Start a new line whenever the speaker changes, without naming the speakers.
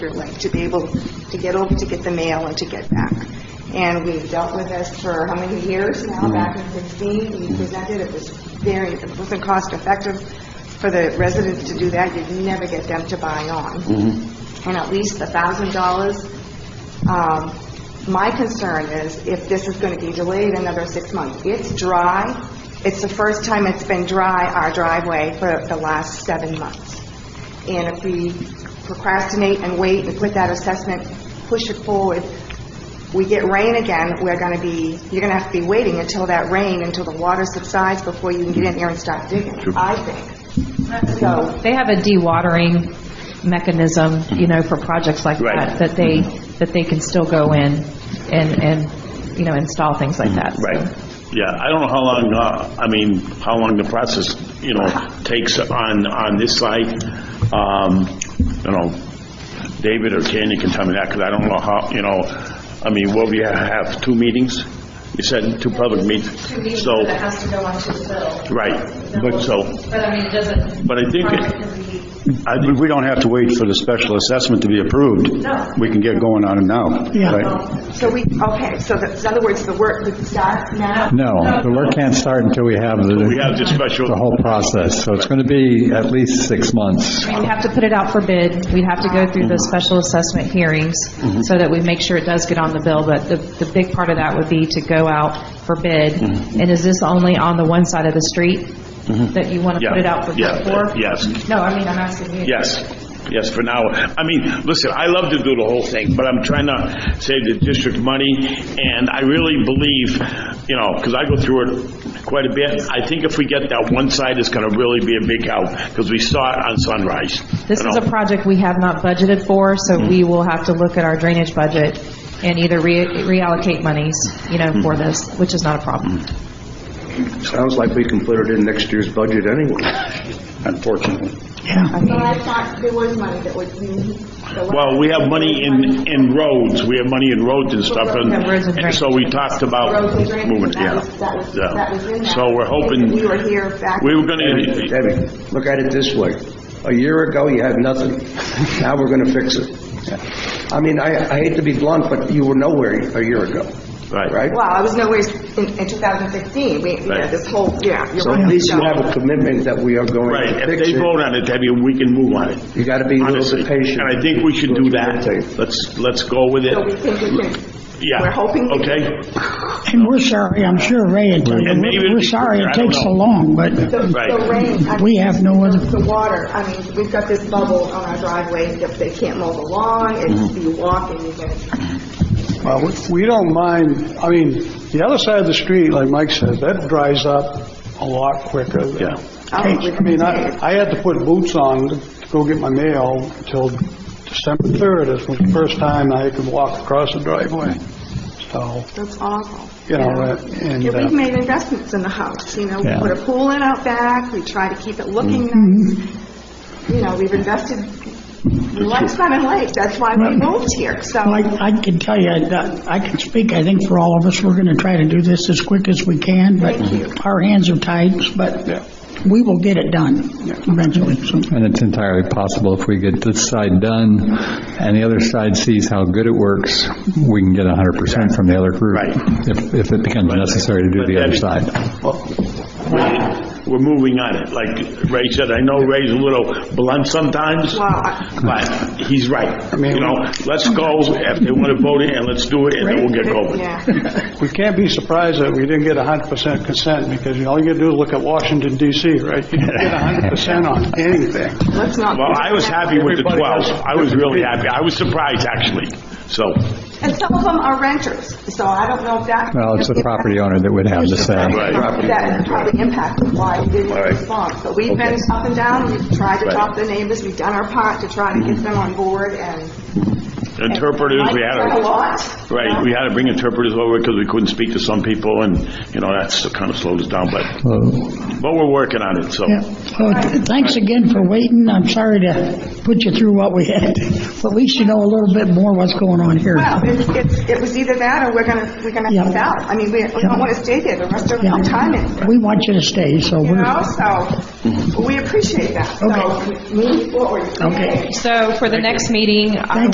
like, to be able to get over to get the mail and to get back. And we've dealt with this for how many years now, back in 16, we presented, it was very, it wasn't cost-effective for the residents to do that, you'd never get them to buy on. And at least a thousand dollars. Um, My concern is if this is going to be delayed another six months. It's dry, it's the first time it's been dry, our driveway, for the last seven months. And if we procrastinate and wait and put that assessment, push it forward, we get rain again, we're going to be, you're going to have to be waiting until that rain, until the water subsides before you can get in there and start digging, I think. So,
They have a dewatering mechanism, you know, for projects like
Right. Mm-hmm.
that, that they, that they can still go in and, and, you know, install things like that. so.
Mm-hmm. Right. Yeah, I don't know how long, uh, I mean, how long the process, you know, takes on, on this side. Um, You know, David or Candy can tell me that, because I don't know how, you know, I mean, will we have two meetings? You said two public meetings?
two meetings,
So,
but it has to go on to the bill.
Right, but so,
But I mean, it doesn't.
But I think it-
Project can be-
I- but We don't have to wait for the special assessment to be approved.
No.
We can get going on it now. Yeah.
so we, okay, so that- in other words, the work would start now?
No, the work can't start until we have the...
we have the special-
The whole process, so it's going to be at least six months.
We'd have to put it out for bid, we'd have to go through the
Mm-hmm.
special assessment hearings, so that we make sure it does get on the bill, but the, the big part of that would be to go out for bid.
Mm-hmm.
And is this only on the one side of the street that you want to
yeah.
put it out for
yeah,
bid for?
Yes.
No, I mean, I'm asking you.
Yes, yes, for now. I mean, listen, I love to do the whole thing, but I'm trying to save the district money, and I really believe, you know, because I go through it quite a bit, I think if we get that one side, it's going to really be a big help, because we saw it on Sunrise.
This
you
is
know.
a project we have not budgeted for, so we will have to look at our drainage budget and either re- reallocate monies, you know, for this, which is not a problem.
Sounds like we can put it in next year's budget anyway.
Unfortunately.
Well, I thought there was money that was. Well,
Well, we have money in, in roads, we have money in roads and stuff, and,
Yeah, roads and
and so we talked about
Roads and drainage,
Oh, moving, it,
that
yeah.
was- that was-
yeah.
that was in that.
So we're hoping.
We were here back-
We were gonna,
Debbie, look at it this way. A year ago, you had nothing. Now we're going to fix it. I mean, I I hate to be blunt, but you were nowhere a year ago.
Right.
Well, I was nowhere in, in 2016, we, you know,
Right.
this whole, yeah. you're
So
right.
at least you have a commitment that we are going
Right,
to
if
fix
they
it.
vote on it, Debbie, we can move on it.
You gotta be a little bit
Honestly.
patient.
And I think we should do that.
Okay.
Let's, let's go with it.
So we think we can,
Yeah.
we're hoping we
Okay.
And we're sorry, I'm sure Ray will tell you,
And maybe it'll
we're we're
be
sorry
quicker, I
it
don't
takes so
know.
long, but
the, the
Right.
rain. I mean,
We have no other-
The water, I mean, we've got this bubble on our driveway, that they can't mow the lawn, it's, you walk and you get,
Well, we- we don't mind, I mean, the other side of the street, like Mike says, that dries up a lot quicker. than-
Yeah.
Oh, we
I mean, I I had to put boots on to go get my mail until December 3rd, This was the first time I could walk across the driveway. So,
that's awful.
you know, and...
Yeah,
uh,
we've made investments in the house, you know, we
Yeah.
put a pool in out back, we try to keep it looking
Mm-hmm.
nice. You know, we've invested, we like Simon Lake, that's why we moved here, so.
I I can tell you, that- I can speak, I think, for all of us, we're going to try to do this as quick as we can,
Thank you.
but our hands are tied, but we will get it done eventually, so.
And it's entirely possible if we get this side done and the other side sees how good it works, we can get 100% from the other group.
Right.
If, if it becomes necessary to do
But
the other
Debbie-
side.
We're- We're moving on it. Like Ray said, I know Ray's a little blunt sometimes,
Well, I-
but he's right. You know, let's go, if they want to vote it, and let's do it, and then we'll get going.
Yeah,
We can't be surprised that we didn't get 100% consent, because you know, all you gotta do is look at Washington DC, right? You don't get 100% on anything.
let's not.
Well, I was happy with the
Everybody
12.
has-
I was really happy. I was surprised, actually. So,
And some of them are renters, so I don't know if that.
Well, it's the property owner that would have the say.
Right.
That probably impacted why we didn't
All right.
respond. But we've been up and down, we've tried to
Right.
talk to the neighbors, we've done our part to try to get them on board and.
interpreters, we had
Mike's done a
a,
lot.
right, we had to bring interpreters over because we couldn't speak to some people, and, you know, that's kind of slowed us down, but
So-
But we're working on it, so.
Yeah. Well, th- Thanks again for waiting. I'm sorry to put you through what we had, but at least you know a little bit more what's going on here.
Well, it's, it's, it was either that or we're gonna, we're gonna
Yeah.
have out. I mean, we, we don't wanna stay there the rest of our time
Yeah,
in,
we want you to stay, so
you
we're,
know,
Mm-hmm.
so we appreciate that. So
Okay.
Move forward.
Okay.
So for the next meeting, I